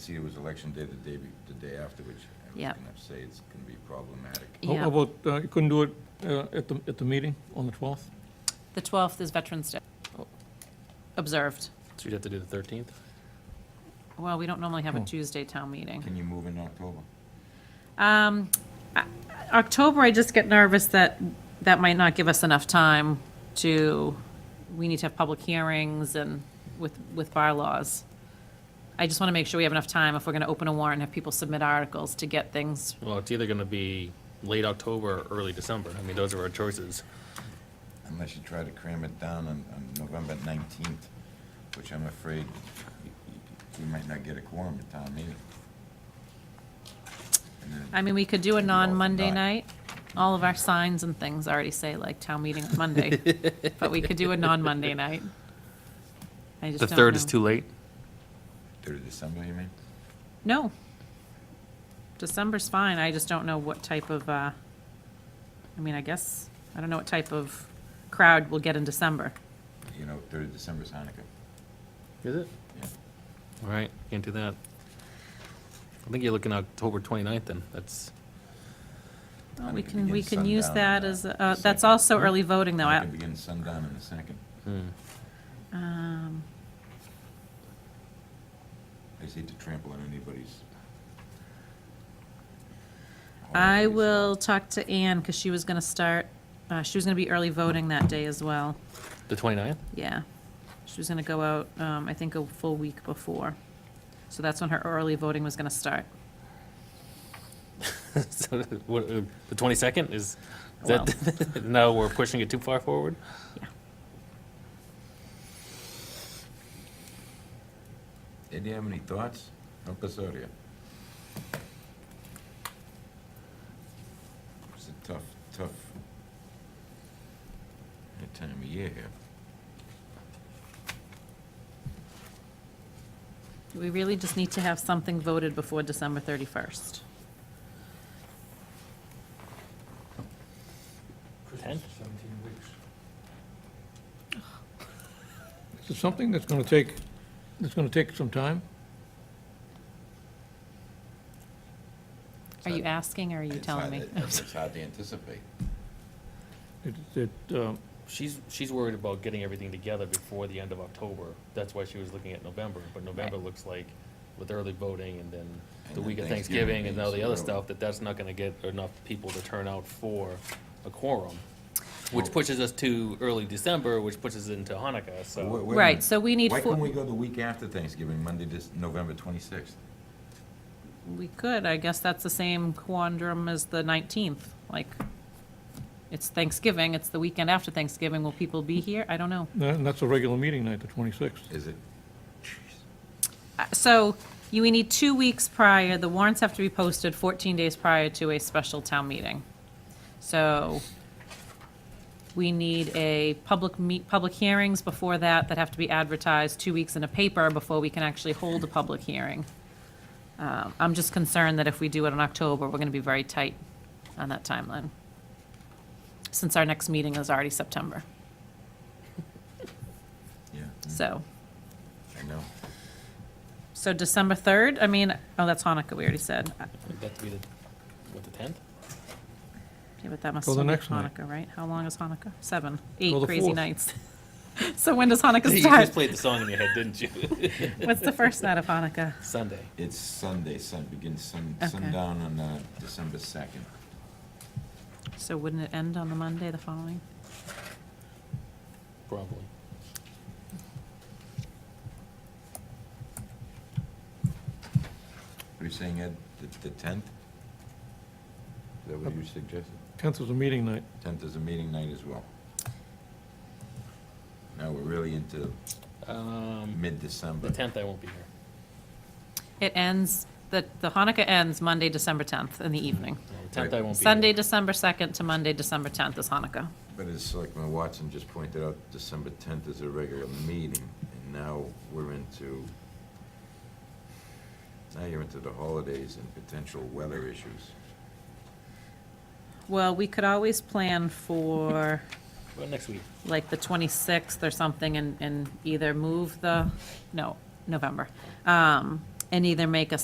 See, it was election day, the day, be- the day after, which I was Yep. gonna say it's gonna be problematic. How Yeah. about, uh, you couldn't do it uh, at the, at the meeting on the 12th? The 12th is Veterans Day. Observed. So you'd have to do the 13th? Well, we don't normally have a Oh. Tuesday town meeting. Can you move in October? Um, I- October, I just get nervous that that might not give us enough time to, we need to have public hearings and with, with bylaws. I just want to make sure we have enough time if we're going to open a warrant and have people submit articles to get things. Well, it's either going to be late October or early December. I mean, those are our choices. Unless you try to cram it down on, on November nineteenth, which I'm afraid we might not get a quorum at town meeting. And then- I mean, we could do a Maybe all non-Monday night. night. All of our signs and things already say like town meeting on Monday, but we could do a non-Monday night. I just The don't third is know. too late. Third of December, you mean? No. December's fine, I just don't know what type of, uh, I mean, I guess, I don't know what type of crowd we'll get in December. You know, third of December is Hanukkah. Is it? Yeah. All right, can't do that. I think you're looking October 29th then. That's, Well, Hanukkah We can, we begins can use sundown on that the Hmm? as, uh, that's second. also early voting though. I- Hanukkah begins sundown on the second. hmm, um, I just hate to trample on anybody's. I holidays. will talk to Anne, because she was gonna start, uh, she was gonna be early voting that day as well, the 29th? yeah. She was gonna go out, um, I think a full week before. So that's when her early voting was gonna start. So, what, uh, The 22nd is, is Well. that, no, we're pushing it too far forward? Ed, do you have any thoughts? Help us out here. It's a tough, tough time of year here. We really just need to have something voted before December 31st. 10th? Is it something that's going to take, that's going to take some time? It's Are you hard- asking or are you it's telling hard- me? It's it's hard to anticipate. It, it, um, She's, she's worried about getting everything together before the end of October. That's why she was looking at November, but November Right. looks like with early voting and then And the then week of Thanksgiving Thanksgiving and all the being other so early. stuff, that that's not gonna get enough people to turn out for a quorum, which Well- pushes us to early December, which pushes it into Hanukkah, Wait- wait a so. minute. Right, so we need Why four- can't we go the week after Thanksgiving, Monday, this, November twenty-sixth? We could, I guess that's the same quandrum as the 19th, like, it's Thanksgiving, it's the weekend after Thanksgiving, will people be here? I don't know. and that's a regular meeting night, the 26th. Is it? Uh, So you, we need two weeks prior, the warrants have to be posted 14 days prior to a special town meeting. So we need a public meet, public hearings before that, that have to be advertised two weeks in a paper before we can actually hold a public hearing. Um, I'm just concerned that if we do it in October, we're going to be very tight on that timeline, since our next meeting is already September. Yeah, mm, So, I know. so December 3rd, I mean, oh, that's Hanukkah, we already said. That to be the, what, the tenth? Yeah, but that must Till the still be next night. Hanukkah, right? How long is Hanukkah? Seven, eight Till the crazy fourth. nights. So when does Hanukkah You just start? played the song in your head, didn't you? What's the first night of Hanukkah? Sunday. It's Sunday, sun, begins sun, Okay. sundown on, uh, December second. So wouldn't it end on the Monday, the following? Probably. What are you saying, Ed, the tenth? Is that what you suggested? 10th is a meeting night. Tenth is a meeting night as well. Now we're really into Um, mid-December. the tenth I won't be here. It ends, the, the Hanukkah ends Monday, December 10th in the evening. No, The tenth I won't be here. Sunday, December 2nd to Monday, December 10th is Hanukkah. But as Selectman Watson just pointed out, December tenth is a regular meeting, and now we're into, now you're into the holidays and potential weather issues. Well, we could always plan for Well, next week. like the 26th or something and, and either move the, no, November. Um, and either make a